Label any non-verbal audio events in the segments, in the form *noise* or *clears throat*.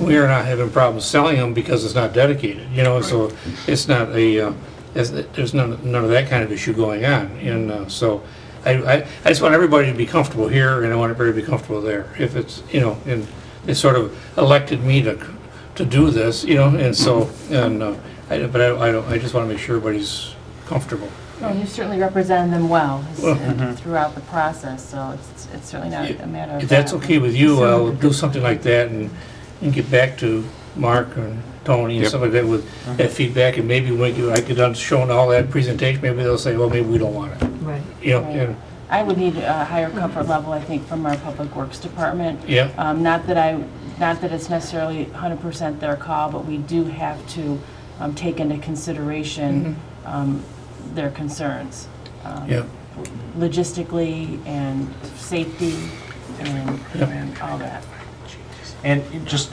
we are not having problems selling them because it's not dedicated, you know, so it's not a, uh, it's- there's none, none of that kind of issue going on. And uh, so I, I, I just want everybody to be comfortable here and I want everybody to be comfortable there. If it's, you know, and they sort of elected me to, to do this, you know, and so, and, uh, I, but I, I don't, I just want to make sure everybody's comfortable. Well, you certainly represented them well s- Well- mm-hmm. throughout the process, so it's it's certainly not a matter of... If that's that. okay with you, uh. I'll do something like that and, and get back to Mark and Tony and Yep. stuff like that with that feedback, and maybe when you, I get done showing all that presentation, maybe they'll say, well, maybe we don't want it. Right. You know, Right. and, I would need a higher comfort level, I think, from our Public Works Department. Yeah. Um, Not that I, not that it's necessarily 100% their call, but we do have to um, take into consideration um, their concerns. um, Mm-hmm. Yeah. Logistically and safety and Yep. and all that. And it just,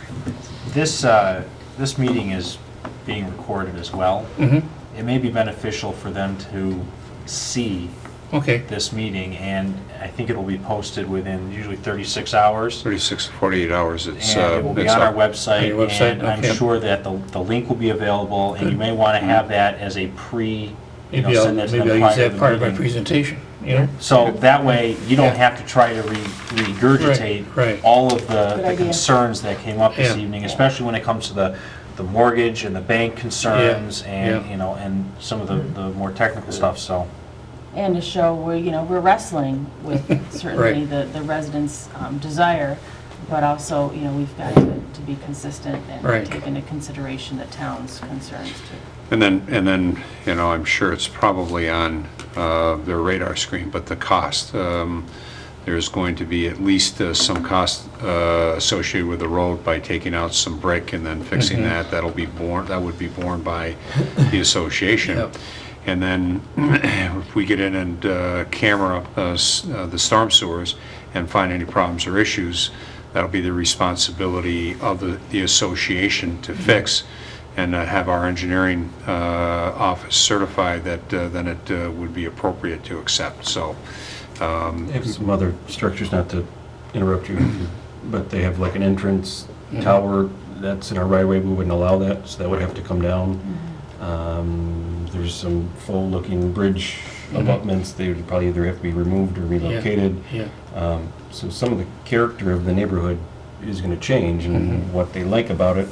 this, uh, this meeting is being recorded as well. mhm, It may be beneficial for them to see okay, this meeting, and I think it'll be posted within usually 36 hours. 36 to 48 hours, it's, And uh, it will be it's on our up. website. On your website, And I'm okay. sure that the, the link will be available, and you may want to have that as a pre, you know, maybe I'll, send that to maybe them I'll use prior to that part of the my meeting. presentation, you know? So that way, you Yeah. don't have to try to re- Right, right. regurgitate all of the- Good the idea. concerns that came up this Yeah. evening, especially when it comes to the, the mortgage and the bank concerns and, yeah. you know, and some of the, the more technical stuff, so. and to show we're, you know, we're wrestling with certainly *laughs* Right. the, the residents' um, desire, but also, you know, we've got to to be consistent Right. and take into consideration the town's concerns too. And then, and then, you know, I'm sure it's probably on uh, their radar screen, but the cost, um, there's going to be at least uh, some cost uh, associated with the road by taking out some brick and then fixing that. That'll be borne, that would be borne by the association. Yep. And then *clears throat* if we get in and uh, camera uh, s- uh, the storm sewers and find any problems or issues, that'll be the responsibility of the the association to fix and uh, have our engineering uh, office certify that uh, then it uh, would be appropriate to accept. So um, They have some other structures, not to interrupt you, but they have like an entrance tower that's in our right of way, we wouldn't allow that, so that would have to come down. Mm-hmm. Um, There's some full-looking bridge Mm-hmm. abutments, they would probably either have to be removed or relocated. Yeah, Um, So some of the character of the neighborhood is gonna change, and what they like about it,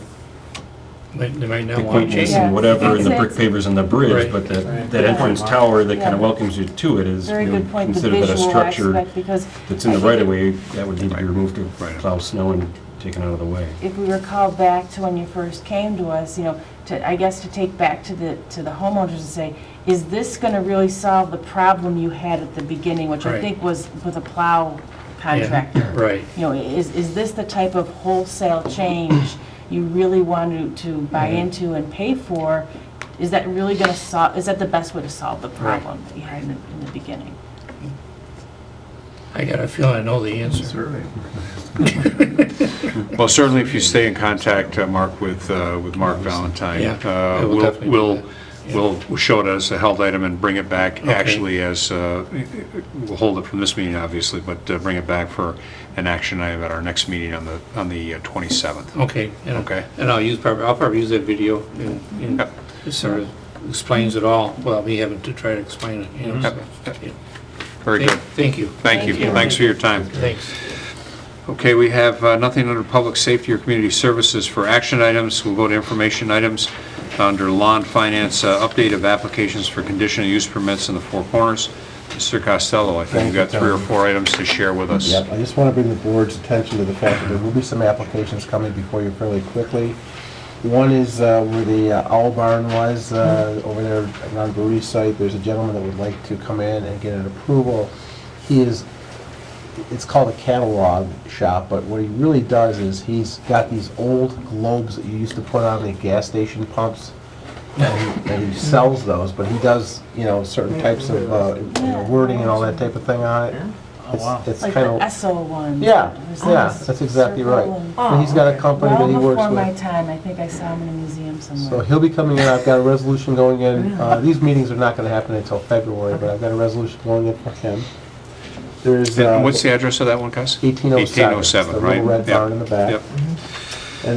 might- they might the not want to change quaintness it. Yeah. and whatever, and the It's- brick pavers and the Right. bridge, but that, that entrance tower that kind Yeah. of welcomes you to it is, Very we good would point, the consider that a visual structure aspect, because that's in the right of way, that would need to be removed to Right. plow snow and taken out of the way. if we recall back to when you first came to us, you know, to, I guess to take back to the, to the homeowners and say, is this going to really solve the problem you had at the beginning, which I Right. think was with a plow contractor? Yeah, Right, you know, is, is this the type of wholesale change you really want to, to buy Mm-hmm. into and pay for? Is that really gonna solve, is that the best way to solve the problem that you had in the, in the beginning? I got a feeling I know the answer. Well, certainly if you stay in contact, uh, Mark, with, uh, with Mark Valentine, Yeah, uh, I will we'll, definitely do we'll, that. we'll show it as a held item and bring it back Okay. actually as, uh, we'll hold it from this meeting, obviously, but uh, bring it back for an action item at our next meeting on the, on the uh, 27th. Okay. and- Okay. And I'll use, probably, I'll probably use that video and, and Yep. it sort of explains it all, without me having to try to explain it, you know, Yep. so. yeah. Very good. Thank you. Thank you. Thanks for your time. Thanks. Okay, we have uh, nothing under public safety or community services for action items. We'll go to information items under law and finance, uh, update of applications for conditional use permits in the Four Corners. Mr. Costello, I think you've got three or four items to share with us. Yep, I just want to bring the board's attention to the fact that there will be some applications coming before you fairly quickly. One is uh, where the uh, owl barn was, uh, over there on Brewery site, there's a gentleman that would like to come in and get an approval. He is, it's called a catalog shop, but what he really does is he's got these old globes that you used to put on the gas station pumps, and and he sells those, but he does, you know, certain types of uh, you know, wording and all that type of thing on it. It's- wow. It's Like kind the of. Esso one. Yeah, There's yeah, this that's exactly right. circle and- But he's got a company that Well he before works my with. time, I think I saw him in a museum So somewhere. he'll be coming in, I've got a resolution going in, uh, these meetings are not gonna happen until February, but I've got a resolution going in for him. There's, uh, And What's the address of that one, Cos? 1807. It's 1807, the right? little Yep. red barn in the back. Yep.